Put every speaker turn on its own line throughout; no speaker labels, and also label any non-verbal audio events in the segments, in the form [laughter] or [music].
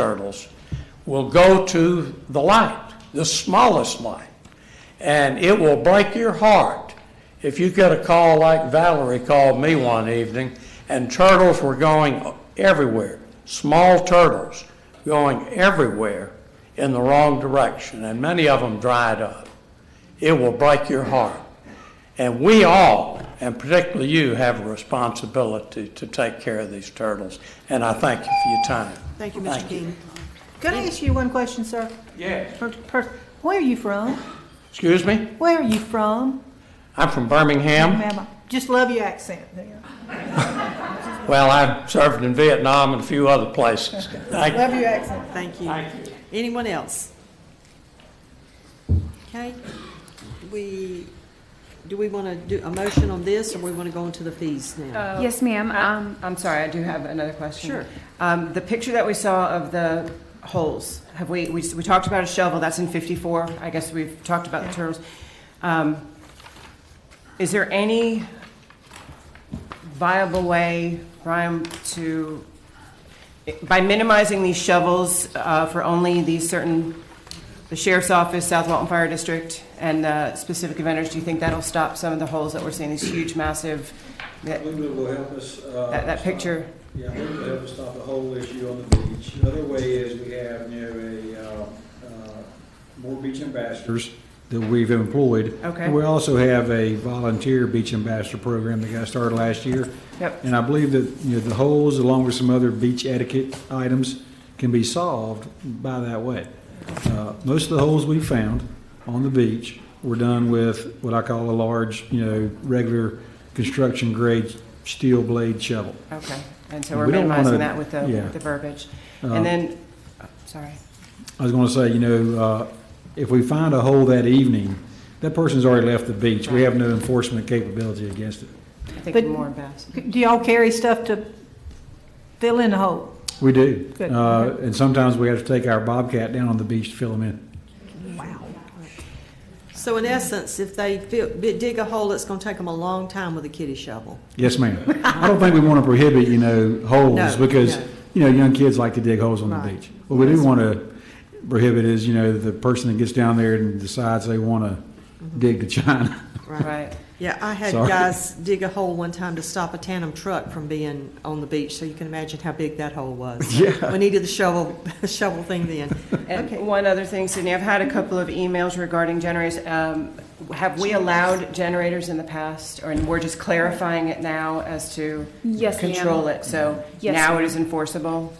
turtles will go to the light, the smallest light. And it will break your heart if you get a call like Valerie called me one evening, and turtles were going everywhere, small turtles going everywhere in the wrong direction, and many of them dried up. It will break your heart. And we all, and particularly you, have a responsibility to take care of these turtles, and I thank you for your time.
Thank you, Mr. King. Can I ask you one question, sir?
Yes.
Per- per- Where are you from?
Excuse me?
Where are you from?
I'm from Birmingham.
Ma'am, I just love your accent there.
Well, I've served in Vietnam and a few other places. Thank you.
Love your accent.
Thank you.
Thank you.
Anyone else? Okay, we, do we want to do a motion on this, or we want to go into the fees
Uh,
now?
Yes, ma'am. Um,
Oh. I'm sorry, I do have another question.
Sure.
Um, the picture that we saw of the holes, have we, we, we talked about a shovel, that's in fifty-four, I guess we've talked about the turtles. Um, is there any viable way, Brian, to, by minimizing these shovels, uh, for only these certain, the sheriff's office, South Walton Fire District, and, uh, specific vendors, do you think that'll stop some of the holes that we're seeing, these huge, massive, that,
I believe it will help us. uh,
that, that picture?
Yeah, I believe it will help us stop the whole issue on the beach. Another way is we have, you know, a, um, uh, more beach ambassadors that we've employed.
Okay.
And we also have a volunteer beach ambassador program that got started last year.
Yep.
And I believe that, you know, the holes, along with some other beach etiquette items, can be solved by that way. Uh, Most of the holes we found on the beach were done with what I call a large, you know, regular construction grade steel blade shovel.
Okay, and so we're
We don't
minimizing
wanna-
that with the,
yeah.
with the verbiage.
Um,
And then, oh, sorry,
I was going to say, you know, uh, if we find a hole that evening, that person's already left the beach. We have no enforcement capability against it.
I think
But-
more best.
[laughs]
Do y'all carry stuff to fill in the hole?
We do.
Good.
Uh, and sometimes we have to take our Bobcat down on the beach to fill them in.
Wow.
So in essence, if they fill- dig a hole, it's going to take them a long time with a kitty shovel.
Yes, ma'am. I don't think we want to prohibit, you know, holes
No,
because,
no.
you know, young kids like to dig holes on the
Right.
beach. What we do want to prohibit is, you know, the person that gets down there and decides they want
Mm-hmm.
to dig to China. [laughs]
Right,
[laughs]
Yeah, I had
Sorry.
guys dig a hole one time to stop a tandem truck from being on the beach, so you can imagine how big that hole was.
[laughs] Yeah.
We needed the shovel, [laughs] shovel thing then. Okay.
and one other thing, Sydney, I've had a couple of emails regarding generators. Um, Have we allowed generators in the past, or, and we're just clarifying it now as to
Yes, ma'am.
control it, so
Yes,
now
ma'am.
it is enforceable?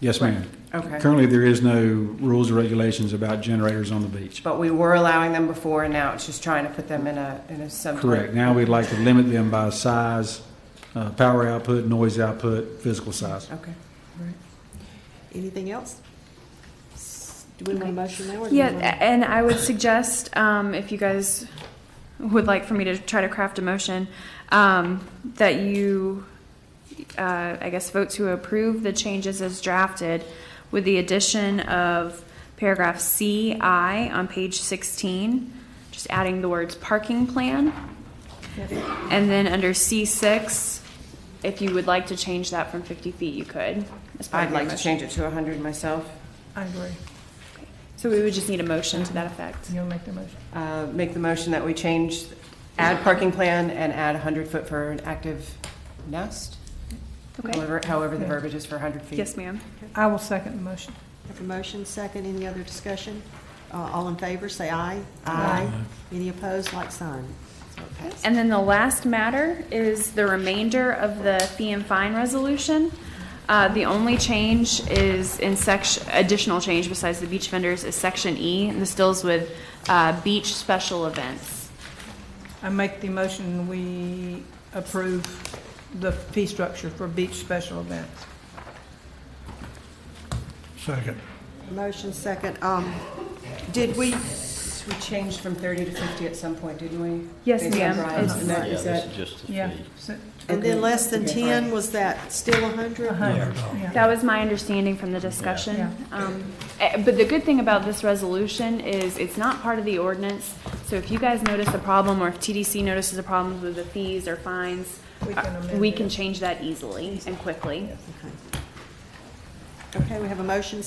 Yes, ma'am.
Okay.
Currently, there is no rules or regulations about generators on the beach.
But we were allowing them before, and now it's just trying to put them in a, in a some. type-
Correct. Now we'd like to limit them by size, uh, power output, noise output, physical size.
Okay.
Anything else? Do we want a motion now? or do we
yeah,
wanna-
a- and I would suggest um, if you guys would like for me to try to craft a motion um, that you, uh, I guess, vote to approve the changes as drafted with the addition of paragraph CI on page 16, just adding the words parking plan. And then under C6, if you would like to change that from 50 feet, you could. as part
I'd
of your
like to
motion.
change it to hundred myself.
I agree.
So we would just need a motion to that effect.
You want to make the motion?
Uh, make the motion that we change, add parking plan and add 100 foot for an active nest?
Okay.
However, however the verbiage is for 100 feet.
Yes, ma'am.
I will second the motion.
Have a motion, second, any other discussion? Uh, All in favor, say aye. Aye. Any opposed, like sign. So it passes.
And then the last matter is the remainder of the fee and fine resolution. Uh, the only change is in section, additional change besides the beach vendors is section E, and this deals with, uh, beach special events.
I make the motion, we approve the fee structure for beach special events.
Motion, second, um, did we,
We changed from 30 to 50 at some point, didn't we?
Yes,
Based on
ma'am.
Brian's
It's-
note, is that-
Yeah.
and then less than
Okay.
10, was that still 100?
That was my understanding from the discussion. Um, eh, But the good thing about this resolution is it's not part of the ordinance. So if you guys notice a problem or if TDC notices a problem with the fees or fines,
We can
uh,
amend
we
it.
can change that easily and quickly.
Okay, we have a motion,